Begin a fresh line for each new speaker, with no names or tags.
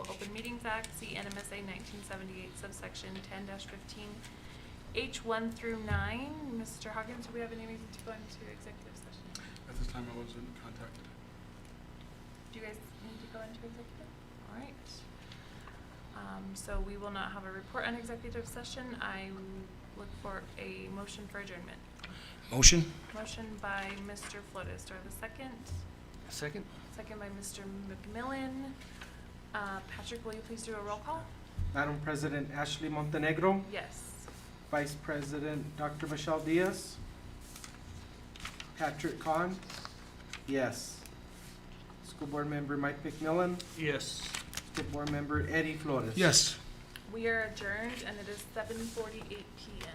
Crimes Act, see NMSA nineteen seventy-eight subsection ten fifteen, H one through nine. Mr. Hawkins, do we have any reason to go into executive session?
At this time, I wasn't contacted.
Do you guys need to go into executive? All right. Um, so we will not have a report on executive session. I look for a motion for adjournment.
Motion?
Motion by Mr. Flotis. Do I have a second?
Second.
Second by Mr. McMillan. Uh, Patrick, will you please do a roll call?
Madam President Ashley Montenegro,
Yes.
Vice President Dr. Michelle Diaz, Patrick Kahn, yes. School Board Member Mike McMillan,
Yes.
School Board Member Eddie Flores.
Yes.
We are adjourned and it is seven forty-eight PM.